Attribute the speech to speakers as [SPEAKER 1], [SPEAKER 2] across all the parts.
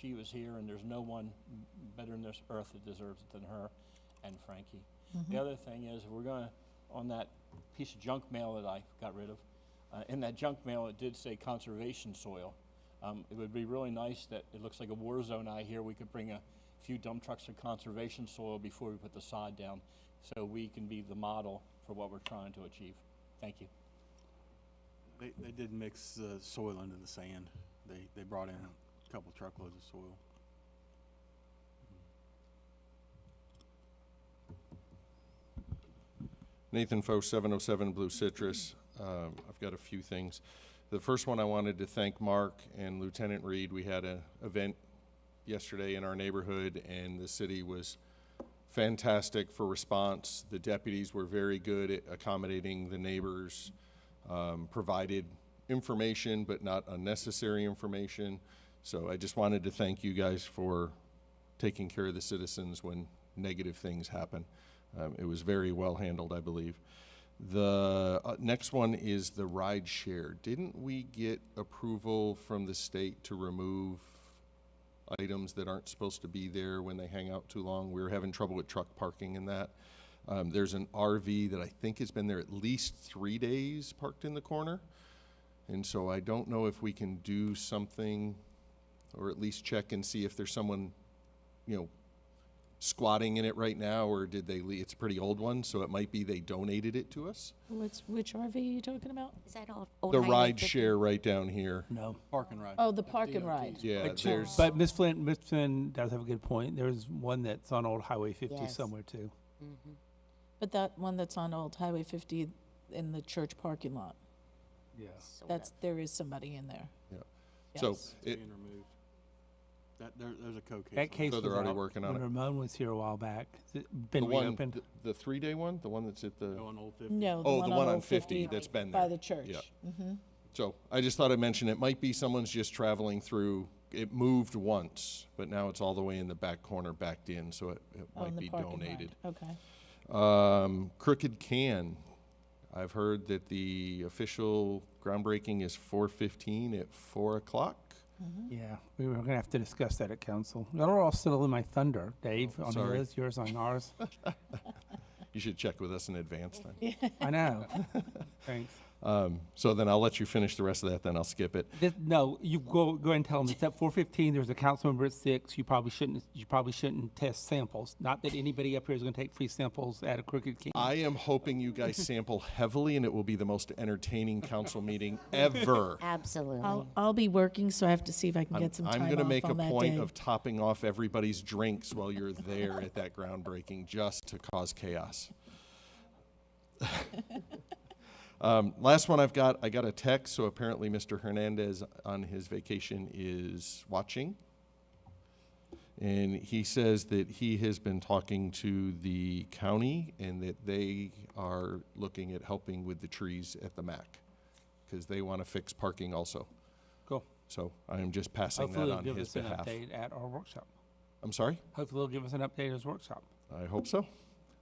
[SPEAKER 1] she was here, and there's no one better in this earth that deserves it than her and Frankie. The other thing is, we're gonna, on that piece of junk mail that I got rid of, uh, in that junk mail, it did say conservation soil. Um, it would be really nice that, it looks like a war zone out here, we could bring a few dump trucks of conservation soil before we put the sod down, so we can be the model for what we're trying to achieve. Thank you.
[SPEAKER 2] They, they did mix the soil into the sand. They, they brought in a couple truckloads of soil.
[SPEAKER 3] Nathan Foe, 707 Blue Citrus. Um, I've got a few things. The first one, I wanted to thank Mark and Lieutenant Reed. We had an event yesterday in our neighborhood, and the city was fantastic for response. The deputies were very good at accommodating the neighbors, um, provided information, but not unnecessary information. So I just wanted to thank you guys for taking care of the citizens when negative things happen. Um, it was very well handled, I believe. The uh, next one is the ride share. Didn't we get approval from the state to remove items that aren't supposed to be there when they hang out too long? We were having trouble with truck parking and that. Um, there's an RV that I think has been there at least three days parked in the corner. And so I don't know if we can do something or at least check and see if there's someone, you know, squatting in it right now, or did they leave? It's a pretty old one, so it might be they donated it to us.
[SPEAKER 4] Which, which RV are you talking about?
[SPEAKER 5] Is that all? Oh, old
[SPEAKER 3] The
[SPEAKER 5] highway
[SPEAKER 3] ride
[SPEAKER 5] 50?
[SPEAKER 3] share right down here.
[SPEAKER 1] No.
[SPEAKER 2] Park and ride.
[SPEAKER 4] Oh, the park and ride.
[SPEAKER 3] Yeah,
[SPEAKER 6] But-
[SPEAKER 3] there's,
[SPEAKER 6] But Ms. Flint, Ms. Flint does have a good point. There's one that's on Old Highway 50
[SPEAKER 5] Yes.
[SPEAKER 6] somewhere too.
[SPEAKER 4] But that one that's on Old Highway 50 in the church parking lot,
[SPEAKER 6] Yeah.
[SPEAKER 5] Sort
[SPEAKER 4] that's,
[SPEAKER 5] of.
[SPEAKER 4] there is somebody in there.
[SPEAKER 3] Yeah. so
[SPEAKER 4] Yes.
[SPEAKER 3] it,
[SPEAKER 2] Being removed. That, there, there's a co-case. on
[SPEAKER 6] That case
[SPEAKER 3] So
[SPEAKER 6] was
[SPEAKER 3] they're already
[SPEAKER 6] out
[SPEAKER 3] working on
[SPEAKER 6] when
[SPEAKER 3] it.
[SPEAKER 6] Ramon was here a while back. Has it
[SPEAKER 3] the
[SPEAKER 6] Been
[SPEAKER 3] one,
[SPEAKER 6] reopened.
[SPEAKER 3] th- the three-day one, the one that's at the,
[SPEAKER 2] Go on Old Fifty.
[SPEAKER 4] No, the
[SPEAKER 3] oh,
[SPEAKER 4] one
[SPEAKER 3] the one on
[SPEAKER 4] Old
[SPEAKER 3] fifty that's been
[SPEAKER 4] By
[SPEAKER 3] there.
[SPEAKER 4] the church.
[SPEAKER 3] Yeah.
[SPEAKER 4] Mhm.
[SPEAKER 3] So I just thought I'd mention, it might be someone's just traveling through, it moved once, but now it's all the way in the back corner, backed in, so it, it
[SPEAKER 4] Oh,
[SPEAKER 3] might
[SPEAKER 4] in the
[SPEAKER 3] be
[SPEAKER 4] park and ride.
[SPEAKER 3] donated.
[SPEAKER 4] Okay.
[SPEAKER 3] Um, Crooked Can. I've heard that the official groundbreaking is four fifteen at four o'clock.
[SPEAKER 6] Yeah, we were gonna have to discuss that at council. Y'all are all still in my thunder, Dave, on
[SPEAKER 3] Oh, sorry.
[SPEAKER 6] yours, yours on ours.
[SPEAKER 3] You should check with us in advance then.
[SPEAKER 6] I know. Thanks.
[SPEAKER 3] Um, so then I'll let you finish the rest of that, then I'll skip it.
[SPEAKER 6] This, no, you go, go ahead and tell them, it's at four fifteen, there's a council member at six, you probably shouldn't, you probably shouldn't test samples. Not that anybody up here is gonna take free samples at a Crooked King.
[SPEAKER 3] I am hoping you guys sample heavily and it will be the most entertaining council meeting ever.
[SPEAKER 5] Absolutely.
[SPEAKER 4] I'll, I'll be working, so I have to see if I can
[SPEAKER 3] I'm,
[SPEAKER 4] get some time
[SPEAKER 3] I'm gonna
[SPEAKER 4] off
[SPEAKER 3] make a
[SPEAKER 4] on that
[SPEAKER 3] point
[SPEAKER 4] day.
[SPEAKER 3] of topping off everybody's drinks while you're there at that groundbreaking just to cause chaos. um, last one I've got, I got a text, so apparently Mr. Hernandez on his vacation is watching. And he says that he has been talking to the county and that they are looking at helping with the trees at the MAC because they want to fix parking also.
[SPEAKER 6] Cool.
[SPEAKER 3] So I am just passing
[SPEAKER 6] Hopefully
[SPEAKER 3] that
[SPEAKER 6] they'll
[SPEAKER 3] on
[SPEAKER 6] give
[SPEAKER 3] his
[SPEAKER 6] us an
[SPEAKER 3] behalf.
[SPEAKER 6] update at our workshop.
[SPEAKER 3] I'm sorry?
[SPEAKER 6] Hopefully they'll give us an update at his workshop.
[SPEAKER 3] I hope so.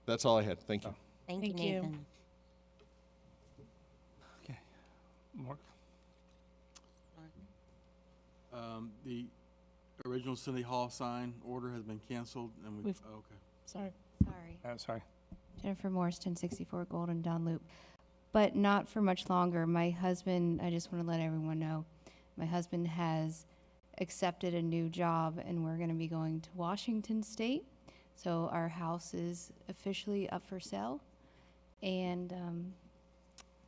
[SPEAKER 3] That's all I had. Thank you.
[SPEAKER 5] Thank you,
[SPEAKER 4] Thank you.
[SPEAKER 5] Nathan.
[SPEAKER 6] Okay. Mark?
[SPEAKER 2] Um, the original City Hall sign order has been canceled and we,
[SPEAKER 4] We've-
[SPEAKER 2] oh, okay.
[SPEAKER 4] Sorry.
[SPEAKER 7] Sorry.
[SPEAKER 6] Oh, sorry.
[SPEAKER 7] Jennifer Morris, 1064 Golden Don Loop. But not for much longer. My husband, I just want to let everyone know, my husband has accepted a new job and we're going to be going to Washington State. So our house is officially up for sale and um,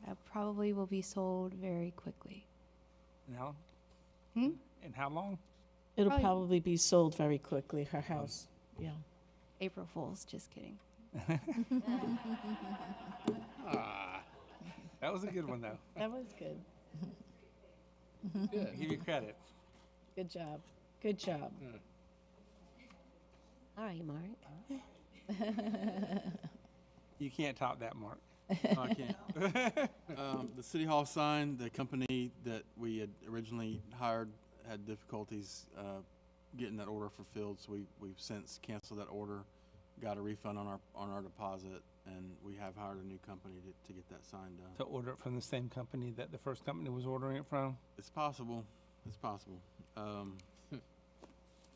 [SPEAKER 7] uh, probably will be sold very quickly.
[SPEAKER 6] And how,
[SPEAKER 7] Hmm?
[SPEAKER 6] and how long?
[SPEAKER 4] It'll
[SPEAKER 7] Probably-
[SPEAKER 4] probably be sold very quickly,
[SPEAKER 3] Um,
[SPEAKER 4] her house. Yeah.
[SPEAKER 7] April Fools, just kidding.
[SPEAKER 6] That was a good one, though.
[SPEAKER 4] That was good.
[SPEAKER 6] Give you credit.
[SPEAKER 4] Good job. Good job.
[SPEAKER 5] All right, Mark.
[SPEAKER 6] You can't top that, Mark.
[SPEAKER 2] No, I can't. Um, the City Hall sign, the company that we had originally hired had difficulties, uh, getting that order fulfilled, so we, we've since canceled that order, got a refund on our, on our deposit, and we have hired a new company to, to get that sign
[SPEAKER 6] To
[SPEAKER 2] done.
[SPEAKER 6] order it from the same company that the first company was ordering it from.
[SPEAKER 2] It's possible, it's possible. Um,